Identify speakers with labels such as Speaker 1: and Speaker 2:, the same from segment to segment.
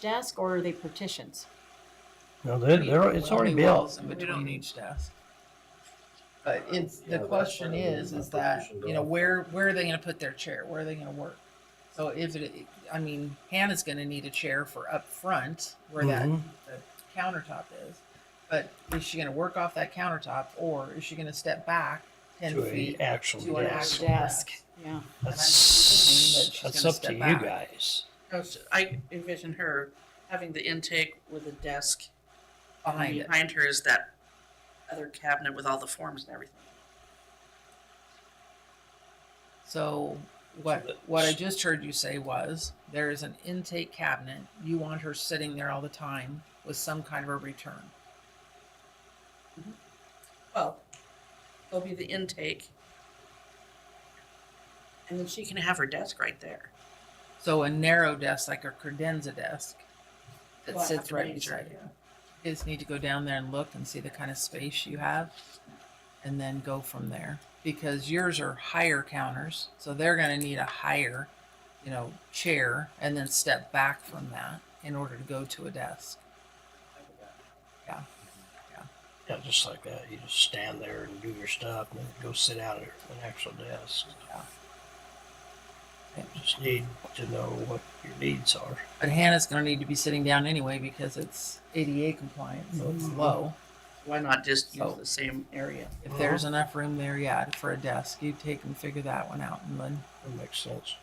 Speaker 1: desk or are they partitions?
Speaker 2: No, they're, they're, it's already
Speaker 3: Only walls
Speaker 2: built.
Speaker 3: In between each desk. But it's,
Speaker 4: Yeah,
Speaker 3: the
Speaker 4: that's
Speaker 3: question
Speaker 4: why we
Speaker 3: is,
Speaker 4: need
Speaker 3: is
Speaker 4: a
Speaker 3: that,
Speaker 4: partition
Speaker 3: you know,
Speaker 4: door.
Speaker 3: where, where are they gonna put their chair? Where are they gonna work? So if it, I mean, Hannah's gonna need a chair for up front where that
Speaker 2: Mhm.
Speaker 3: countertop is. But is she gonna work off that countertop or is she gonna step back ten
Speaker 2: To a
Speaker 3: feet?
Speaker 2: actual
Speaker 3: to an
Speaker 2: desk.
Speaker 3: actual
Speaker 1: Desk, yeah.
Speaker 3: thinking that
Speaker 2: That's,
Speaker 3: she's
Speaker 2: that's
Speaker 3: gonna
Speaker 2: up to
Speaker 3: step
Speaker 2: you
Speaker 3: back.
Speaker 2: guys.
Speaker 5: No, Oh, so I envision her having the intake with a desk
Speaker 3: Behind
Speaker 5: and
Speaker 3: it.
Speaker 5: behind her is that other cabinet with all the forms and everything.
Speaker 3: So
Speaker 2: So
Speaker 3: what,
Speaker 2: that-
Speaker 3: what I just heard you say was, there is an intake cabinet. You want her sitting there all the time with some kind of a return.
Speaker 5: Well, there'll be the intake. And then she can have her desk right there.
Speaker 3: So a narrow desk, like a credenza desk, that
Speaker 5: Well, I have
Speaker 3: sits
Speaker 5: to
Speaker 3: right
Speaker 5: raise
Speaker 3: beside
Speaker 5: it,
Speaker 3: it.
Speaker 5: yeah.
Speaker 3: You just need to go down there and look and see the kind of space you have, and then go from there. Because yours are higher counters, so they're going to need a higher, you know, chair, and then step back from that in order to go to a desk.
Speaker 2: Yeah, just like that. You just stand there and do your stuff and then go sit out at an actual desk.
Speaker 3: Yeah.
Speaker 2: Just need to know what your needs are.
Speaker 3: But Hannah's going to need to be sitting down anyway because it's ADA compliant, so it's
Speaker 2: Mhm.
Speaker 3: low.
Speaker 5: Why not just use
Speaker 3: So-
Speaker 5: the same area?
Speaker 3: If there's enough room there, yeah, for a desk, you take and figure that one out and then
Speaker 2: That makes sense.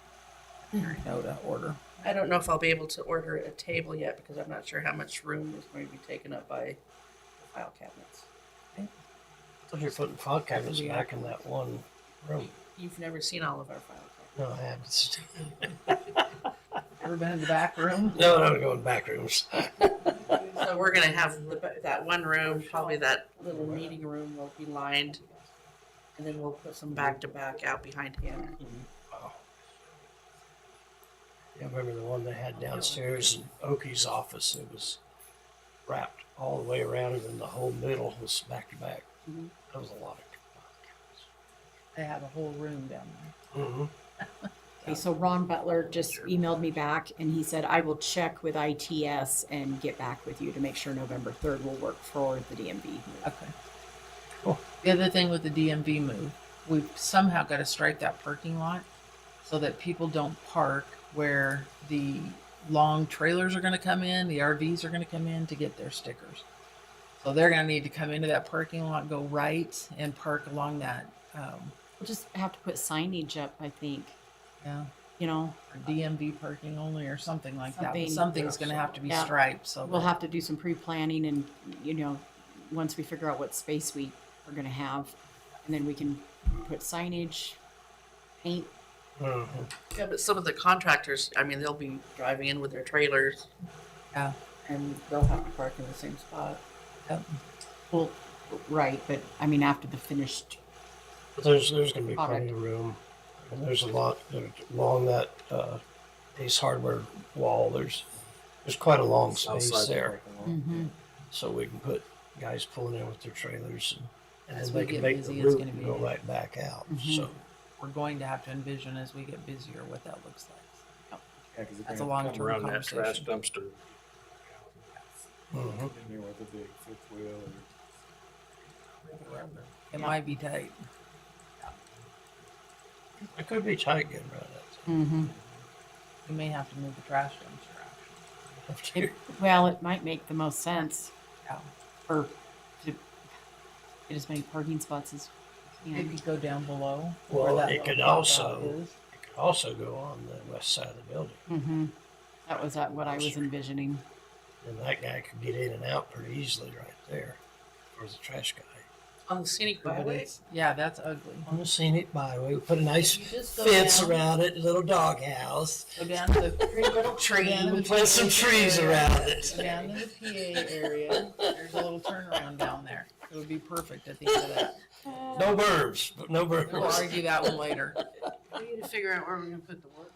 Speaker 3: know to order.
Speaker 5: I don't know if I'll be able to order a table yet because I'm not sure how much room is going to be taken up by the file cabinets.
Speaker 2: But you're putting file cabinets
Speaker 3: Yeah.
Speaker 2: back in that one room.
Speaker 5: You've never seen all of our file cabinets.
Speaker 2: No, I haven't.
Speaker 3: Ever been in the back room?
Speaker 2: No, no, going back rooms.
Speaker 5: So we're gonna have the, that one room, probably that little meeting room will be lined. And then we'll put some back to back out behind Hannah.
Speaker 2: Wow. Yeah, I remember the one they had downstairs in Oki's office. It was wrapped all the way around, and then the whole middle was back to back.
Speaker 3: Mm-hmm.
Speaker 5: Mhm.
Speaker 2: That was a lot
Speaker 3: They have a whole room down there.
Speaker 2: of. Mm-hmm.
Speaker 1: Okay, so Ron Butler just emailed me back and he said, I will check with ITS and get back with you to make sure November third will work for the DMV.
Speaker 3: Okay.
Speaker 2: Cool.
Speaker 3: The other thing with the DMV move, we've somehow got to strike that parking lot so that people don't park where the long trailers are going to come in, the RVs are going to come in to get their stickers. So they're going to need to come into that parking lot, go right, and park along that. Um,
Speaker 1: We'll just have to put signage up, I think,
Speaker 3: yeah,
Speaker 1: you know,
Speaker 3: or DMV parking only, or something like that.
Speaker 1: Something.
Speaker 3: But something's going to have to be
Speaker 1: Yeah.
Speaker 3: striped. So
Speaker 1: we'll
Speaker 3: that-
Speaker 1: have to do some pre-planning and, you know, once we figure out what space we are gonna have. And then we can put signage, paint,
Speaker 2: Mm-hmm.
Speaker 5: Yeah, but some of the contractors, I mean, they'll be driving in with their trailers.
Speaker 3: Yeah.
Speaker 5: And they'll have to park in the same spot.
Speaker 3: Yep.
Speaker 1: well, right, but I mean, after the finished,
Speaker 2: But there's there's going to be
Speaker 1: Product.
Speaker 2: plenty of room. And there's a lot there's along that uh, Ace Hardware wall. There's there's quite a long space there,
Speaker 3: Mm-hmm.
Speaker 2: so we can put guys pulling in with their trailers, and, and
Speaker 3: As
Speaker 2: then they
Speaker 3: we
Speaker 2: can
Speaker 3: get
Speaker 2: make
Speaker 3: busy,
Speaker 2: the
Speaker 3: it's
Speaker 2: loop
Speaker 3: gonna
Speaker 2: and
Speaker 3: be- Mm-hmm.
Speaker 2: go right back out.
Speaker 1: Mhm.
Speaker 2: So
Speaker 3: we're going to have to envision as we get busier what that looks like.
Speaker 4: Yeah, 'cause they're
Speaker 3: That's
Speaker 4: gonna
Speaker 3: a
Speaker 4: come
Speaker 3: long-term
Speaker 4: around that Trash dumpster.
Speaker 2: Mhm.
Speaker 4: In there with a big fifth wheel or.
Speaker 3: It might be tight.
Speaker 2: it could be tight getting around that.
Speaker 1: Mm-hmm.
Speaker 3: We may have to move the trash dumpster out.
Speaker 2: After
Speaker 1: it, well, it might make the most sense.
Speaker 3: Yeah.
Speaker 1: Or to get as many parking spots as we
Speaker 3: It
Speaker 1: can.
Speaker 5: Mm.
Speaker 3: could go down below. where
Speaker 2: Well,
Speaker 3: that
Speaker 2: it could
Speaker 3: little
Speaker 2: also-
Speaker 3: blackout is.
Speaker 2: It could also go on the west side of the building,
Speaker 1: Mm-hmm. That was uh, what I was envisioning.
Speaker 2: and that guy could get in and out pretty easily right there, or the trash guy.
Speaker 5: On the scenic
Speaker 3: But
Speaker 5: byway.
Speaker 3: it's- Yeah, that's ugly.
Speaker 2: On the scenic byway, we put a nice
Speaker 3: You just go
Speaker 2: fence
Speaker 3: down-
Speaker 2: around it, little doghouse.
Speaker 3: Go down to the pretty little tree.
Speaker 2: We plant some trees around it.
Speaker 3: Down to the PA area, there's a little turnaround down there. It would be perfect at the end of that.
Speaker 2: No birds, but no
Speaker 3: We'll
Speaker 2: birds.
Speaker 3: argue that one later.
Speaker 5: We need to figure out where we're gonna put the work.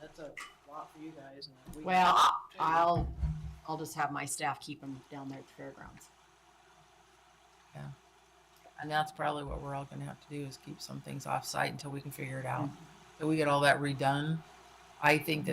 Speaker 5: That's a lot for you guys. and we-
Speaker 1: Well, I'll, I'll just have my staff keep them down there at the fairgrounds.
Speaker 3: And that's probably what we're all gonna have to do is keep some things off site until we can figure it out. So we get all that redone I think that